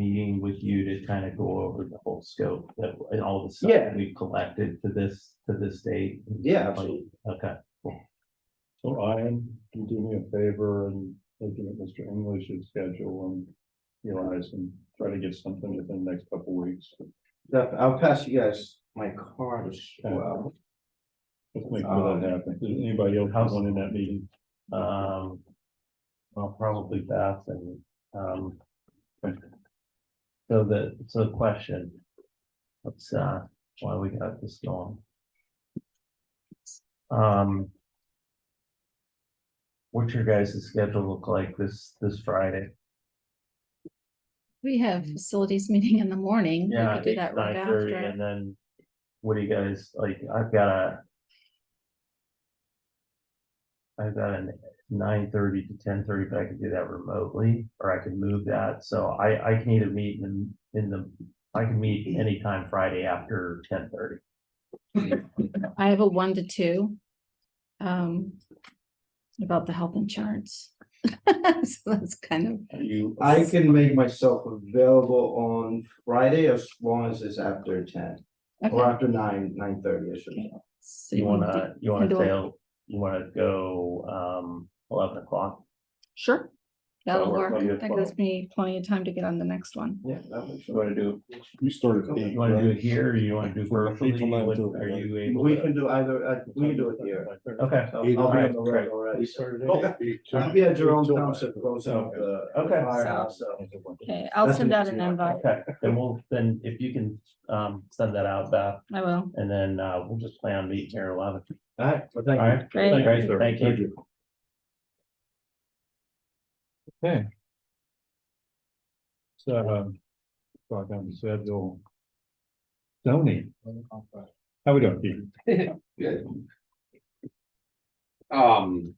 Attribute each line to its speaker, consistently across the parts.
Speaker 1: meeting with you to kind of go over the whole scope that, and all the
Speaker 2: Yeah.
Speaker 1: stuff we've collected to this, to this date?
Speaker 2: Yeah, absolutely.
Speaker 1: Okay,
Speaker 3: So Ian, can you do me a favor and looking at Mr. English's schedule and realize and try to get something within the next couple weeks.
Speaker 2: Def- I'll pass you guys my card as well.
Speaker 3: Let's make sure that happens. Does anybody else have one in that meeting?
Speaker 1: um. Well, probably Beth and, um. So the, so the question. What's, uh, why we got this going? Um. What's your guys' schedule look like this, this Friday?
Speaker 4: We have facilities meeting in the morning. We
Speaker 1: Yeah,
Speaker 4: could do that right
Speaker 1: nine thirty,
Speaker 4: after.
Speaker 1: and then what do you guys, like, I've got a. I've got a nine thirty to ten thirty, but I could do that remotely, or I could move that, so I, I can either meet in, in the. I can meet anytime Friday after ten thirty.
Speaker 4: I have a one to two. Um. About the health insurance. So that's kind of,
Speaker 3: Are you,
Speaker 2: I can make myself available on Friday as long as it's after ten or
Speaker 4: okay.
Speaker 2: after nine, nine thirty, I should say.
Speaker 4: So
Speaker 1: You
Speaker 4: wanna
Speaker 1: wanna,
Speaker 4: do-
Speaker 1: you wanna
Speaker 4: do it?
Speaker 1: go, you wanna go, um, eleven o'clock?
Speaker 4: Sure. That'll
Speaker 3: work
Speaker 4: work.
Speaker 3: on your
Speaker 4: That
Speaker 3: phone.
Speaker 4: gives me plenty of time to get on the next one.
Speaker 2: Yeah, that makes sense.
Speaker 3: want to do? You started. at eight,
Speaker 1: You wanna do
Speaker 3: right?
Speaker 1: it here, or you wanna do
Speaker 3: From eight
Speaker 1: virtually,
Speaker 3: till nine
Speaker 1: What-
Speaker 3: till
Speaker 1: are you able?
Speaker 2: We
Speaker 1: to-
Speaker 2: can do either, uh, we can do it here.
Speaker 1: Okay,
Speaker 2: So I'll be on the road
Speaker 1: Alright,
Speaker 2: already.
Speaker 3: started.
Speaker 2: Okay. I'll be at Jerome Township close up the the
Speaker 1: Okay.
Speaker 2: firehouse, so.
Speaker 4: Okay, I'll
Speaker 2: That's
Speaker 4: send
Speaker 2: what
Speaker 4: out
Speaker 2: you
Speaker 4: an
Speaker 2: want.
Speaker 4: invite.
Speaker 1: okay, then we'll, then if you can, um, send that out, Beth,
Speaker 4: I will.
Speaker 1: And then uh, we'll just plan on meeting here at eleven.
Speaker 2: All right, well,
Speaker 1: All
Speaker 2: thank you.
Speaker 1: right,
Speaker 4: Great.
Speaker 1: Great, thank you.
Speaker 3: Okay. So, um, talk on the schedule. Tony. How we doing, Pete?
Speaker 5: Um.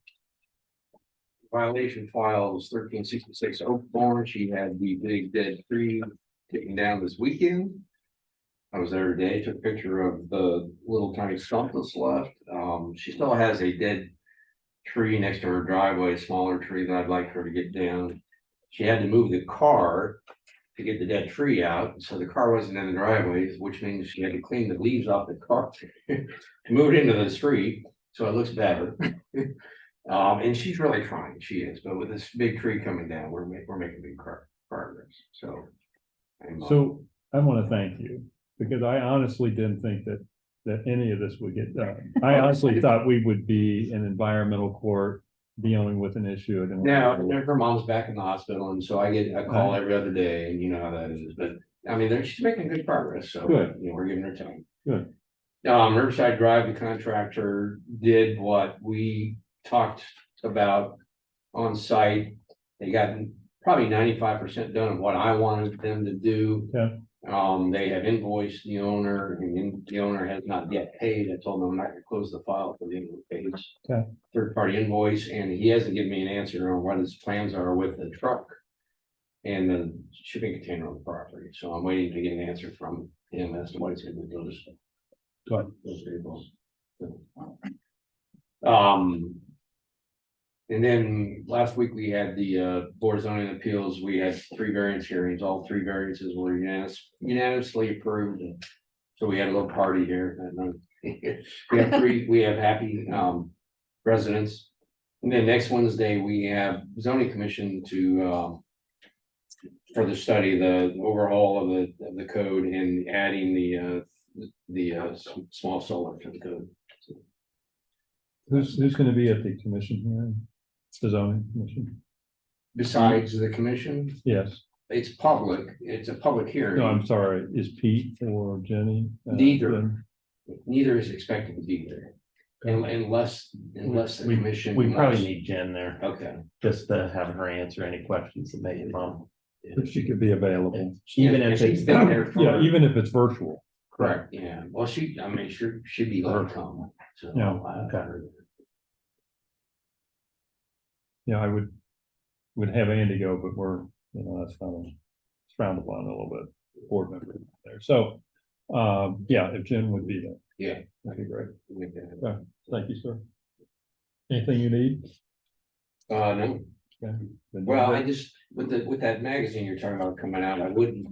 Speaker 5: Violation files thirteen sixty-six Oakmore, she had the big dead tree taken down this weekend. I was there today, took a picture of the little tiny stump that's left, um, she still has a dead. Tree next to her driveway, a smaller tree that I'd like her to get down. She had to move the car to get the dead tree out, so the car wasn't in the driveway, which means she had to clean the leaves off the car. To move it into the street, so it looks better. Um, and she's really trying, she is, but with this big tree coming down, we're ma- we're making big pro- progress, so. I'm, uh,
Speaker 3: So I want to thank you because I honestly didn't think that, that any of this would get done. I honestly thought we would be in environmental court dealing with an issue. and-
Speaker 5: Now, her mom's back in the hospital, and so I get a call every other day, and you know how that is, but, I mean, there- she's making good progress, so,
Speaker 3: Good.
Speaker 5: you know, we're giving her time.
Speaker 3: Good.
Speaker 5: Um, Riverside Drive, the contractor did what we talked about on site. They got probably ninety-five percent done of what I wanted them to do.
Speaker 3: Yeah.
Speaker 5: Um, they have invoiced the owner, and then the owner has not yet paid, I told them I'm not gonna close the file for the end of the page.
Speaker 3: Okay.
Speaker 5: Third-party invoice, and he hasn't given me an answer on what his plans are with the truck. And the shipping container on the property, so I'm waiting to get an answer from him as to what he's gonna do with those.
Speaker 3: Good.
Speaker 5: Those vehicles. Um, and then last week we had the uh board of zoning appeals, we had three variance hearings, all three variances were unanimous- unanimously approved. So we had a little party here and then we have three, we have happy um residents. And then next Wednesday, we have zoning commission to um. For the study, the overhaul of the of the code and adding the uh the uh s- small solar to the code.
Speaker 3: Who's, who's going to be at the commission hearing? The zoning commission?
Speaker 5: Besides the commission,
Speaker 3: Yes.
Speaker 5: it's public, it's a public
Speaker 3: No, I'm
Speaker 5: hearing,
Speaker 3: sorry. Is Pete or Jenny? uh,
Speaker 5: Neither.
Speaker 3: then?
Speaker 5: neither is expected to be there. un- Unless, unless the
Speaker 1: We-
Speaker 5: commission.
Speaker 1: We probably
Speaker 5: wants-
Speaker 1: need Jen there
Speaker 5: Okay,
Speaker 1: just to have her answer any questions that may come.
Speaker 3: If she could be available.
Speaker 1: Even
Speaker 5: Yeah,
Speaker 1: if
Speaker 5: she's
Speaker 1: it's,
Speaker 5: been there for-
Speaker 3: Yeah, even if it's virtual.
Speaker 5: correct, yeah, well, she, I mean, she should be let come, so.
Speaker 3: Yeah,
Speaker 5: I-
Speaker 1: okay.
Speaker 3: Yeah, I would, would have Andy go, but we're, you know, that's kind of it's frowned upon a little bit, board member there. So, um, yeah, if Jen would be there.
Speaker 5: Yeah.
Speaker 3: That'd be great.
Speaker 5: Make that happen.
Speaker 3: Thank you, sir. Anything you need?
Speaker 5: Uh, no,
Speaker 3: Okay.
Speaker 5: Well, I just, with the, with that magazine you're talking about coming out, I wouldn't